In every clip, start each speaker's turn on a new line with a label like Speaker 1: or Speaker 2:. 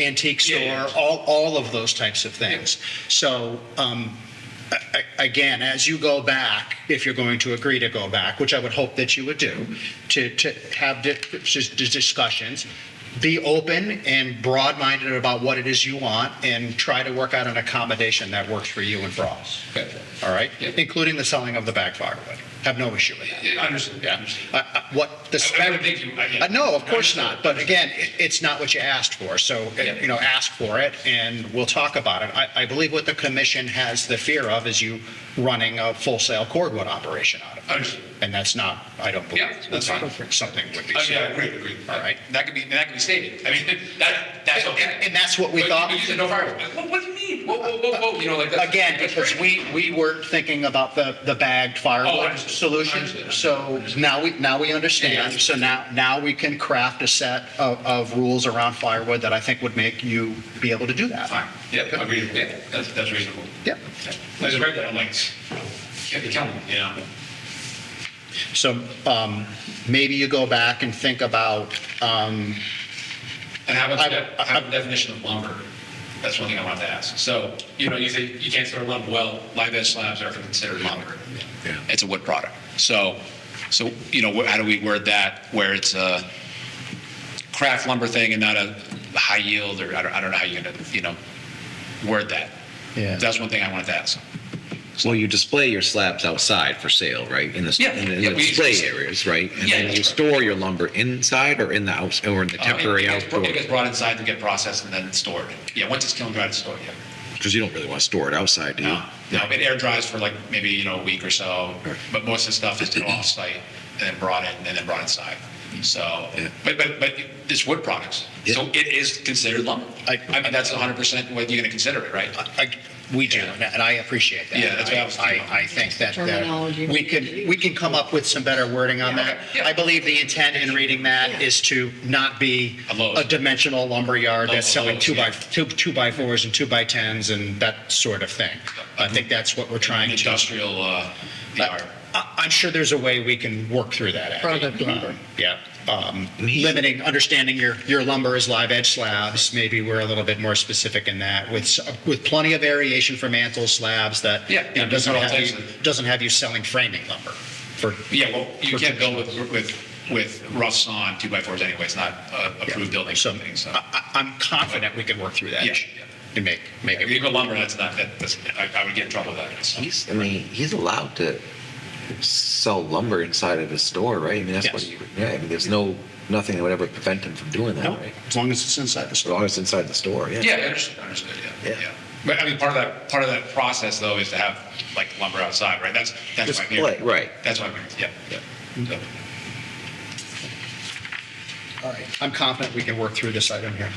Speaker 1: antique
Speaker 2: Yeah, yeah.
Speaker 1: store, all, all of those types of things. So, um, a- a- again, as you go back, if you're going to agree to go back, which I would hope that you would do, to, to have di- dis- discussions, be open and broad-minded about what it is you want and try to work out an accommodation that works for you and Bros.
Speaker 2: Okay.
Speaker 1: All right?
Speaker 2: Yeah.
Speaker 1: Including the selling of the back firewood. Have no issue with that.
Speaker 2: Yeah, Understood,
Speaker 1: Yeah.
Speaker 2: understood.
Speaker 1: Uh, uh, What the
Speaker 2: I- I wouldn't
Speaker 1: spec.
Speaker 2: think you- I- yeah.
Speaker 1: Uh, No, of course
Speaker 2: Understood.
Speaker 1: not. But again, it, it's not what you asked for. So, uh,
Speaker 2: Yeah.
Speaker 1: you know, ask for it and we'll talk about it. I, I believe what the commission has the fear of is you running a full sale cordwood operation out of it.
Speaker 2: Understood.
Speaker 1: And that's not, I don't believe.
Speaker 2: Yeah, that's
Speaker 1: not
Speaker 2: fine.
Speaker 1: Something would be.
Speaker 2: Oh, yeah, I agree, agree.
Speaker 1: All right.
Speaker 2: That could be, that could be stated. I mean, that, that's
Speaker 1: And-
Speaker 2: okay.
Speaker 1: and- and that's what we
Speaker 2: But-
Speaker 1: thought.
Speaker 2: But you said no fireworks. Like, What, what do you mean? Whoa, whoa, whoa, whoa, you know, like that's.
Speaker 1: Again,
Speaker 2: that's
Speaker 1: because
Speaker 2: great.
Speaker 1: we, we weren't thinking about the, the bagged
Speaker 2: Oh,
Speaker 1: firewood
Speaker 2: understood.
Speaker 1: solution.
Speaker 2: Understood.
Speaker 1: So now we, now we understand.
Speaker 2: Yeah.
Speaker 1: So now, now we can craft a set of, of rules around firewood that I think would make you be able to do that.
Speaker 2: Fine, yeah, agreed, yeah, that's, that's reasonable.
Speaker 1: Yep.
Speaker 2: I just read that, I'm like, can't be counting, you know?
Speaker 1: So um, maybe you go back and think about, um,
Speaker 2: And how
Speaker 1: I-
Speaker 2: about, the-
Speaker 1: I-
Speaker 2: how about the definition of lumber? That's one thing I wanted to ask. So, you know, you say you can't store lumber, well, live edge slabs are considered lumber.
Speaker 3: it's a wood product. So, so, you know, wh- how do we word that where it's a craft lumber thing and not a high yield or I don't, I don't know how you're gonna, you know, word that.
Speaker 1: Yeah.
Speaker 3: That's one thing I wanted to ask.
Speaker 4: Well, you display your slabs outside for sale, right? In the,
Speaker 3: Yeah.
Speaker 4: in the, in
Speaker 3: Yeah,
Speaker 4: the
Speaker 3: we-
Speaker 4: display areas, right? And
Speaker 3: Yeah,
Speaker 4: then
Speaker 3: that's
Speaker 4: you
Speaker 3: right.
Speaker 4: store your lumber inside or in the house or in the
Speaker 3: Uh, it-
Speaker 4: temporary
Speaker 3: it gets br-
Speaker 4: outdoor?
Speaker 3: It gets brought inside to get processed and then stored. Yeah, once it's kiln dried, it's stored, yeah.
Speaker 4: Because you don't really want to store it outside, do you?
Speaker 3: No, no, it air dries for like maybe, you know, a week or so, but most of the stuff is done off-site and then brought in, and then brought inside. So,
Speaker 4: Yeah.
Speaker 3: but, but, but it's wood products, so it is considered lumber.
Speaker 1: I-
Speaker 3: I mean, that's hundred percent what you're gonna consider it, right?
Speaker 1: I- we do, and and I appreciate that.
Speaker 3: Yeah, that's what I was thinking.
Speaker 1: I, I think that uh,
Speaker 5: Terminology.
Speaker 1: we could, we can come up with some better wording on that.
Speaker 3: Yeah.
Speaker 1: I believe the intent in reading that
Speaker 5: Yeah.
Speaker 1: is to not be
Speaker 3: A Lowe's.
Speaker 1: a dimensional lumberyard that's
Speaker 3: Oh,
Speaker 1: selling
Speaker 3: Lowe's,
Speaker 1: two by,
Speaker 3: yeah.
Speaker 1: two, two by fours and two by tens and that sort of thing. I think that's what we're
Speaker 3: An
Speaker 1: trying to.
Speaker 3: Industrial, uh, yard.
Speaker 1: I- I'm sure there's a way we can work through that. Abby.
Speaker 5: Product lumber.
Speaker 1: Um, Yeah. Um, Limiting, understanding your, your lumber is live edge slabs. Maybe we're a little bit more specific in that with, s- with plenty of variation for mantle slabs that,
Speaker 3: Yeah,
Speaker 1: you know,
Speaker 3: yeah,
Speaker 1: doesn't
Speaker 3: there's all
Speaker 1: have you,
Speaker 3: types of-
Speaker 1: doesn't have you selling framing lumber for.
Speaker 3: Yeah, well,
Speaker 1: for
Speaker 3: you can't build with, with, with roughs on two by fours anyway, it's not uh, approved building
Speaker 1: So
Speaker 3: something, so.
Speaker 1: I, I- I'm confident we can work through that
Speaker 3: Yeah.
Speaker 1: and make, make
Speaker 3: If
Speaker 1: it.
Speaker 3: you go lumber, that's not, that- that's, I, I would get in trouble with that, so.
Speaker 4: He's, I mean, he's allowed to sell lumber inside of his store, right? I mean, that's what
Speaker 1: Yes.
Speaker 4: he, yeah, I mean, there's no, nothing that would ever prevent him from doing that,
Speaker 1: No,
Speaker 4: right?
Speaker 1: as long as it's inside the
Speaker 4: As
Speaker 1: store.
Speaker 4: long as it's inside the store, yeah.
Speaker 3: Yeah, I understood, understood, yeah,
Speaker 4: Yeah.
Speaker 3: yeah. But I mean, part of that, part of that process though is to have like lumber outside, right? That's, that's why I'm here.
Speaker 4: Display, right.
Speaker 3: That's why I'm here, yeah. So,
Speaker 1: All right. I'm confident we can work through this item here.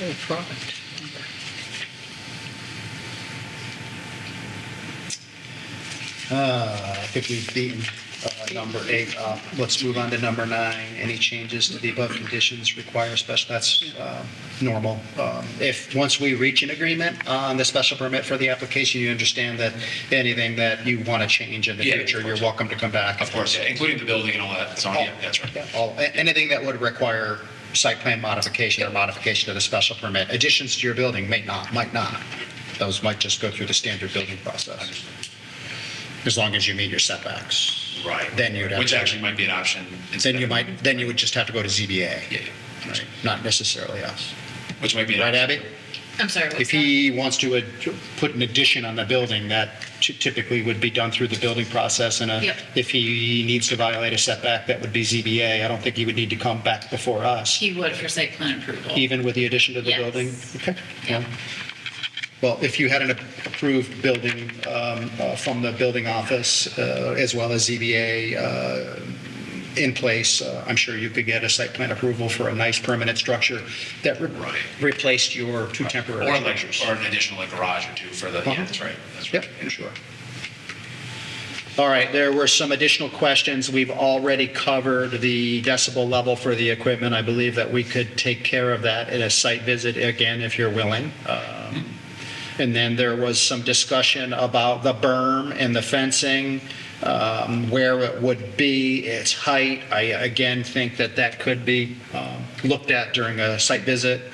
Speaker 5: No product.
Speaker 1: Uh, I think we've beaten uh, number eight. up. Let's move on to number nine. Any changes to the above conditions require special, that's uh, normal. Um, If, once we reach an agreement on the special permit for the application, you understand that anything that you want to change in the
Speaker 3: Yeah, of
Speaker 1: future, you're
Speaker 3: course.
Speaker 1: welcome to come back.
Speaker 3: Of course, yeah, including the building and all that, so, yeah, that's right.
Speaker 1: Oh, Yeah, all- a- Anything that would require site plan modification or modification to the special permit, additions to your building may not, might not. Those might just go through the standard building process. As long as you meet your setbacks.
Speaker 3: Right.
Speaker 1: Then you'd have.
Speaker 3: Which
Speaker 1: to-
Speaker 3: actually might be an option. instead
Speaker 1: Then you
Speaker 3: of-
Speaker 1: might, then you would just have to go to ZBA.
Speaker 3: Yeah, yeah.
Speaker 1: Right, Not necessarily us.
Speaker 3: Which might be. an
Speaker 1: Right,
Speaker 3: option.
Speaker 1: Abby?
Speaker 5: I'm sorry, what's
Speaker 1: If
Speaker 5: that?
Speaker 1: he wants to ad- put an addition on the building, that ty- typically would be done through the building process. And a-
Speaker 5: Yep.
Speaker 1: if he needs to violate a setback, that would be ZBA. I don't think he would need to come back before us,
Speaker 5: He would for site plan approval.
Speaker 1: even with the addition to the
Speaker 5: Yes.
Speaker 1: building. Okay.
Speaker 5: Yeah.
Speaker 1: Well, if you had an approved building um, uh, from the building office, uh, as well as ZBA uh, in place, uh, I'm sure you could get a site plan approval for a nice permanent structure that re-
Speaker 3: Right.
Speaker 1: replaced your two temporary
Speaker 3: Or like,
Speaker 1: structures.
Speaker 3: or an additional like garage or two for the, yeah,
Speaker 1: Uh-huh.
Speaker 3: that's right, that's
Speaker 1: Yep,
Speaker 3: right.
Speaker 1: sure. All right, there were some additional questions. We've already covered the decibel level for the equipment. I believe that we could take care of that at a site visit again, if you're willing. Um, And then there was some discussion about the berm and the fencing, um, where it would be, its height. I, again, think that that could be um, looked at during a site visit.